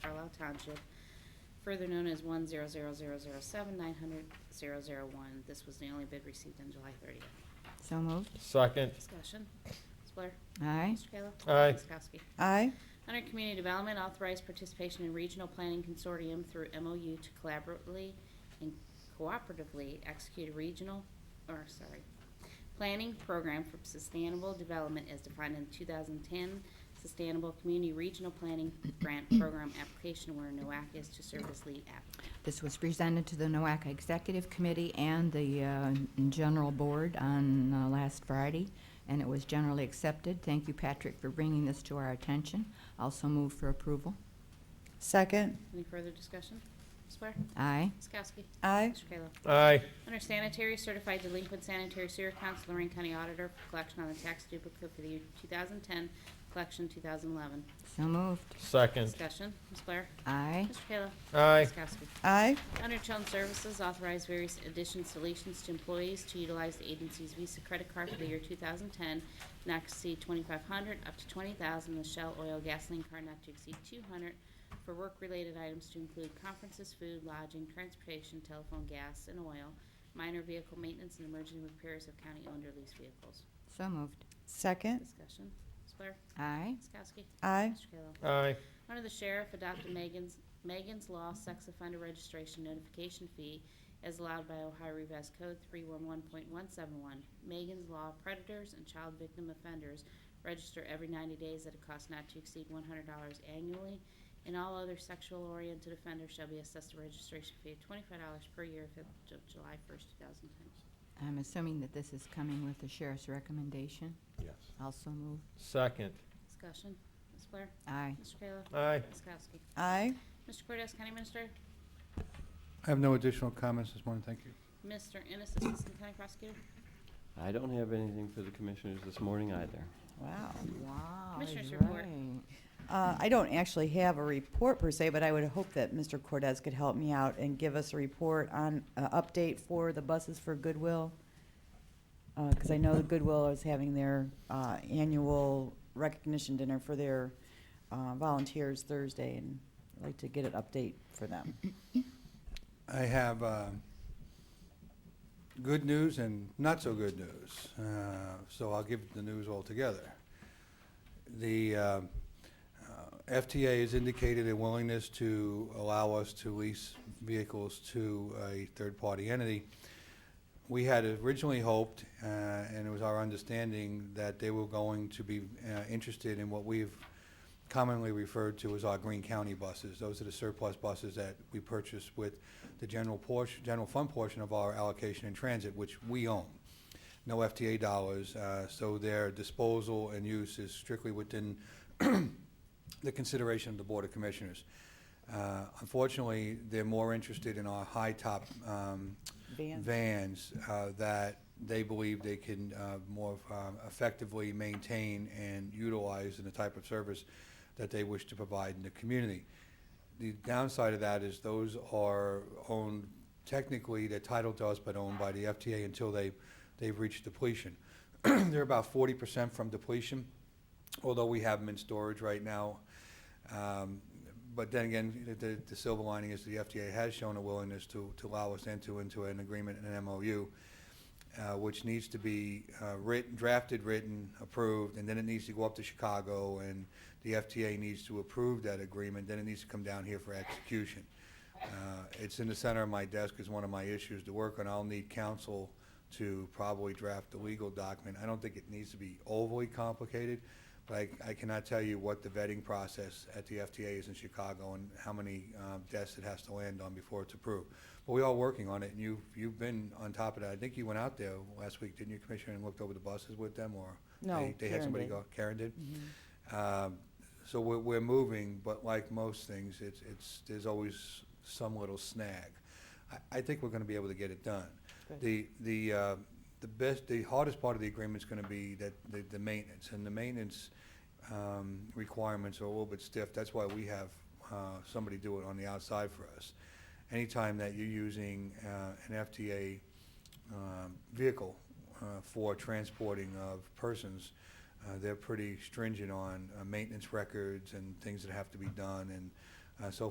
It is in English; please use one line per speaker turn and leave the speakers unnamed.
Carlisle Township, further known as one zero zero zero zero seven nine hundred zero zero one. This was the only bid received on July thirtieth.
So moved.
second,
Discussion. Ms. Blair?
Aye.
Mr. Kayla?
Aye.
Ms. Kowski?
aye,
Under Community Development, authorize participation in Regional Planning Consortium through MOU to collaboratively and cooperatively execute a regional, or sorry, planning program for sustainable development as defined in 2010 Sustainable Community Regional Planning Grant Program application where NOAC is to serve as lead applicant.
This was presented to the NOAC Executive Committee and the uh, General Board on uh, last Friday, and it was generally accepted. Thank you, Patrick, for bringing this to our attention. Also move for approval.
second,
Any further discussion? Ms. Blair?
Aye.
Ms. Kowski?
aye,
Mr. Kayla?
aye,
Under Sanitary, certified delinquent sanitary sewer accounts, Lorraine County Auditor for collection on the tax duplicate for the year 2010, collection 2011.
So moved.
second,
Discussion, Ms. Blair?
Aye.
Mr. Kayla?
aye,
Ms. Kowski?
aye,
Under Children's Services, authorize various additions, deletions to employees to utilize the agency's Visa credit card for the year 2010, not to exceed 2,500, up to 20,000, the Shell Oil Gasoline Card not to exceed 200, for work-related items to include conferences, food, lodging, transportation, telephone, gas, and oil, minor vehicle maintenance, and emergency repairs of county-owned or leased vehicles.
So moved.
second,
Discussion, Ms. Blair?
Aye.
Ms. Kowski?
aye,
Mr. Kayla?
aye,
Under the sheriff, adopted Megan's, Megan's Law Sex Offender Registration Notification Fee as allowed by Ohio Revised Code 311.171. Megan's Law Predators and Child Victim Offenders register every 90 days at a cost not to exceed $100 annually, and all other sexual-oriented offenders shall be assessed a registration fee of $25 per year effective July 1st, 2010.
I'm assuming that this is coming with the sheriff's recommendation.
Yes.
Also move.
second,
Discussion. Ms. Blair?
Aye.
Mr. Kayla?
aye,
Ms. Kowski?
aye,
Mr. Cortez, County Minister?
I have no additional comments this morning, thank you.
Mr. Ennis, Assistant County Prosecutor?
I don't have anything for the commissioners this morning either.
wow.
Wow.
Commissioners
you're
report.
right.
Uh, I don't actually have a report per se, but I would hope that Mr. Cortez could help me out and give us a report on, uh, update for the buses for Goodwill. Uh 'cause cause I know the Goodwill is having their, uh, annual recognition dinner for their, uh, volunteers Thursday, and I'd like to get an update for them.
I have um, good news and not so good news, Uh, so I'll give the news altogether. The uh, uh, FTA has indicated a willingness to allow us to lease vehicles to a third-party entity. We had originally hoped, uh, and it was our understanding, that they were going to be uh, interested in what we've commonly referred to as our Green County buses. Those are the surplus buses that we purchase with the general portion, general fund portion of our allocation in transit, which we own. No FTA dollars, uh, so their disposal and use is strictly within the consideration of the Board of Commissioners. Uh, Unfortunately, they're more interested in our high-top um,
Vans.
vans uh, that they believe they can uh, more um, effectively maintain and utilize in the type of service that they wish to provide in the community. The downside of that is those are owned, technically, they're titled to us, but owned by the FTA until they, they've reached depletion. They're about forty percent from depletion, although we have them in storage right now. Um, But then again, the- the, the silver lining is the FDA has shown a willingness to, to allow us into, into an agreement, an MOU, uh, which needs to be uh, written, drafted, written, approved, and then it needs to go up to Chicago, and the FTA needs to approve that agreement, then it needs to come down here for execution. Uh, It's in the center of my desk, is one of my issues to work on. I'll need counsel to probably draft the legal document. I don't think it needs to be overly complicated, but I- I cannot tell you what the vetting process at the FTA is in Chicago and how many um, desks it has to land on before it's approved. But we are working on it, and you, you've been on top of that. I think you went out there last week, didn't you, Commissioner, and looked over the buses with them, or?
No,
they- They had
Karen
somebody
did. Mm-hmm.
go, Karen did? Um, So we're, we're moving, but like most things, it's, it's, there's always some little snag. I, I think we're gonna be able to get it done.
Good.
The, the, uh, the best, the hardest part of the agreement's gonna be that, the, the maintenance, and the maintenance, um, requirements are a little bit stiff. That's why we have, uh, somebody do it on the outside for us. Anytime that you're using, uh, an FTA, um, vehicle uh, for transporting of persons. Uh, They're pretty stringent on uh, maintenance records and things that have to be done and uh, so